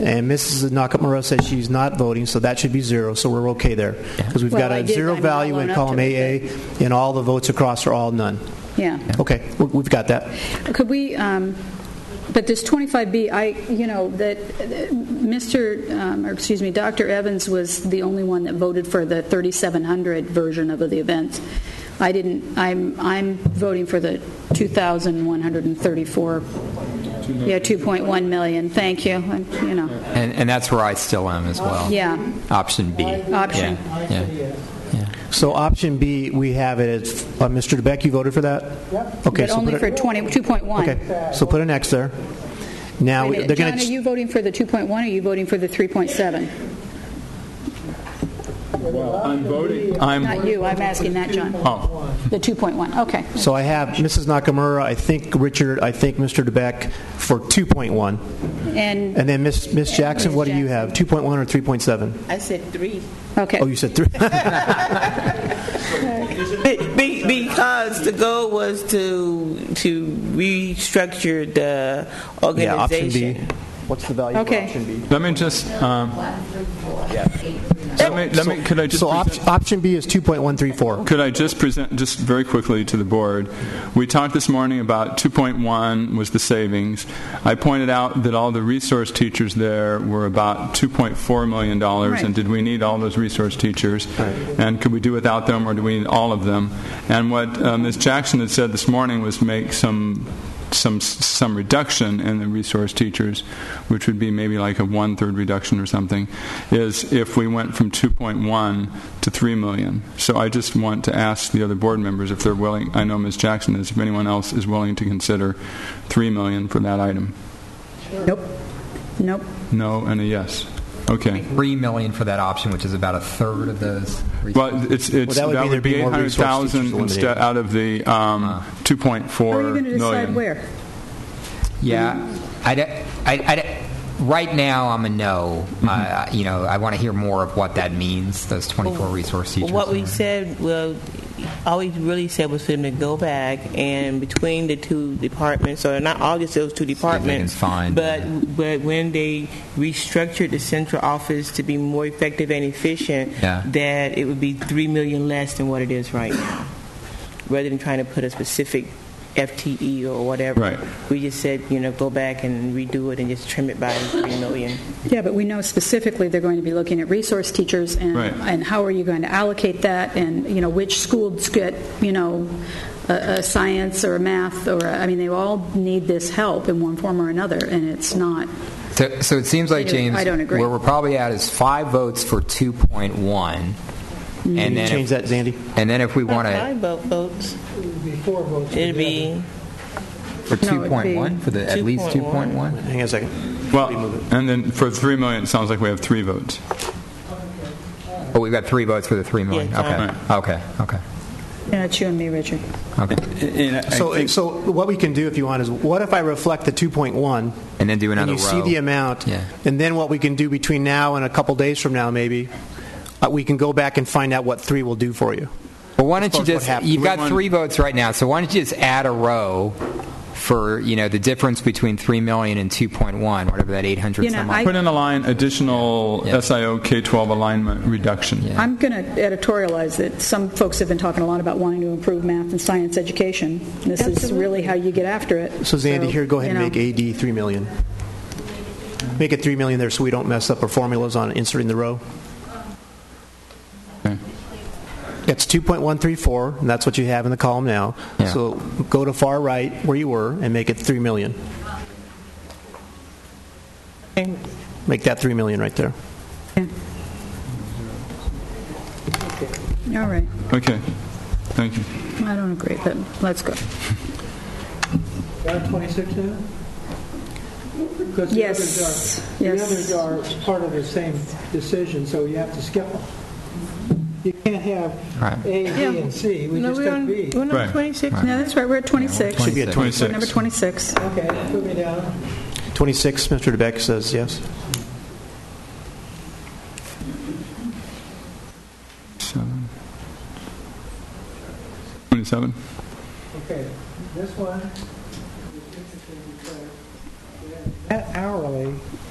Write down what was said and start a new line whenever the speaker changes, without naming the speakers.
And Mrs. Nakamura says she's not voting, so that should be zero, so we're okay there. Because we've
Well,
got
I
a
did-
zero
I'm not
value in
alone up
column
to
AA,
it,
and all the votes across are all none.
Yeah.
Okay, we- we've got that.
Could we, um, but this 25B, I, you know, that uh, Mr., um, or excuse me, Dr. Evans was the only one that voted for the 3,700 version of the event. I didn't, I'm, I'm voting for the 2,134, yeah, 2.1 million, thank you, And, you know,
And, and that's where I still am as well.
yeah,
Option B.
Option.
Yeah, yeah.
So option B, we have it, as- uh, Mr. DeBeck, you voted for that? Yep. Okay,
but
so
only
put
for
it,
20, 2.1.
okay, so put an X there. Now,
Wait a
we-
minute.
they're going
uh, John,
to...
are you voting for the 2.1, or are you voting for the 3.7?
I'm voting.
I'm,
Not you, I'm asking that, John.
oh,
The 2.1, okay.
So I have Mrs. Nakamura, I think Richard, I think Mr. DeBeck for 2.1.
And,
And then Miss Miss Jackson,
Miss
what do you have? 2.1 or 3.7?
I said three.
okay.
Oh, you said 3.
Be- be- Because the goal was to, to restructure the
Yeah, option B.
organization.
What's the value
Okay. option
B?
Let me just, um, let me, let me, could I just
So
present-
op- option B is 2.134.
Could I just present, just very quickly to the board? We talked this morning about 2.1 was the savings. I pointed out that all the resource teachers there were about $2.4 million,
Right.
and did we need all those resource teachers? And could we do without them, or do we need all of them? And what uh, Ms. Jackson had said this morning was make some some some reduction in the resource teachers, which would be maybe like a one third reduction or something, is if we went from 2.1 to 3 million. So I just want to ask the other board members if they're willing. I know Ms. Jackson is. If anyone else is willing to consider 3 million for that item,
Nope. Nope.
no and a yes. Okay.
3 million for that option, which is about a third of those.
Well, it's, it's,
Well, that would be
that would
there'd be
be
more resource teachers
800,000
eliminated. Ah.
instead out of the um, 2.4
How are you going to decide
million.
where?
Yeah, I'd, I'd, I'd- right now, I'm a no.
Mm-hmm.
Uh, You know, I want to hear more of what that means, those 24 resource teachers.
What we said, well, all we really said was for them to go back and between the two departments, or not all just those two departments,
find-
but but when they restructured the central office to be more effective and efficient,
Yeah.
that it would be three million less than what it is right now, rather than trying to put a specific FTE or whatever.
Right.
We just said, you know, go back and redo it and just trim it by three million.
Yeah, but we know specifically they're going to be looking at resource teachers and,
Right.
and how are you going to allocate that and, you know, which schools get, you know, a, a science or a math or, a- I mean, they all need this help in one form or another and it's not,
So, so it seems like,
I don't-
James,
I don't agree.
where we're probably at is five votes for 2.1.
Can
Mm-hmm.
And
you
then,
change that,
if,
Zandy?
and then if we want
Five
to
vote votes. It'd be
for
No, it'd be
2.1 for the at least
2.1.
2.1.
Hang on a second.
Well, and then for 3 million, it sounds like we have three votes.
Oh, we've got three votes for the three million.
Yeah,
okay.
John.
okay, okay,
Yeah, it's you and me, Richard.
okay,
So, so what we can do, if you want, is what if I reflect the 2.1?
And then do another
And you see
row.
the amount.
Yeah.
And then what we can do between now and a couple days from now, maybe, uh, we can go back and find out what 3 will do for you.
Well, why don't
As
you
far as what
just?
happened.
You've
We
got
want-
three votes right now, so why don't you just add a row for you know the difference between three million and two point one, whatever that eight hundred.
You know,
some
I-
odd-
Put in a line, additional
Yeah.
SIO K-12 alignment reduction.
I'm going to editorialize that some folks have been talking a lot about wanting to improve math and science education. This is really how you get after it.
So Zandy, here, go ahead and
you know.
make AD 3 million. Make it 3 million there so we don't mess up our formulas on inserting the row.
Okay.
It's 2.134, and that's what you have in the column now.
Yeah.
So go to far right where you were and make it 3 million. Make that 3 million right there.
All right.
Okay, thank you.
I don't agree, but let's go.
Got 26 now? Because the
Yes,
others are-
yes.
The others are part of the same decision, so you have to skip them. You can't have
Right.
A, B, and C. We
No,
just
we're on,
took B.
we're on
Right.
26
No, that's right, we're at 26.
Should be at
26.
Number 26.
Okay, put me down.
26, Mr. DeBeck says yes.
Seven. 27?
Okay, this one. That hourly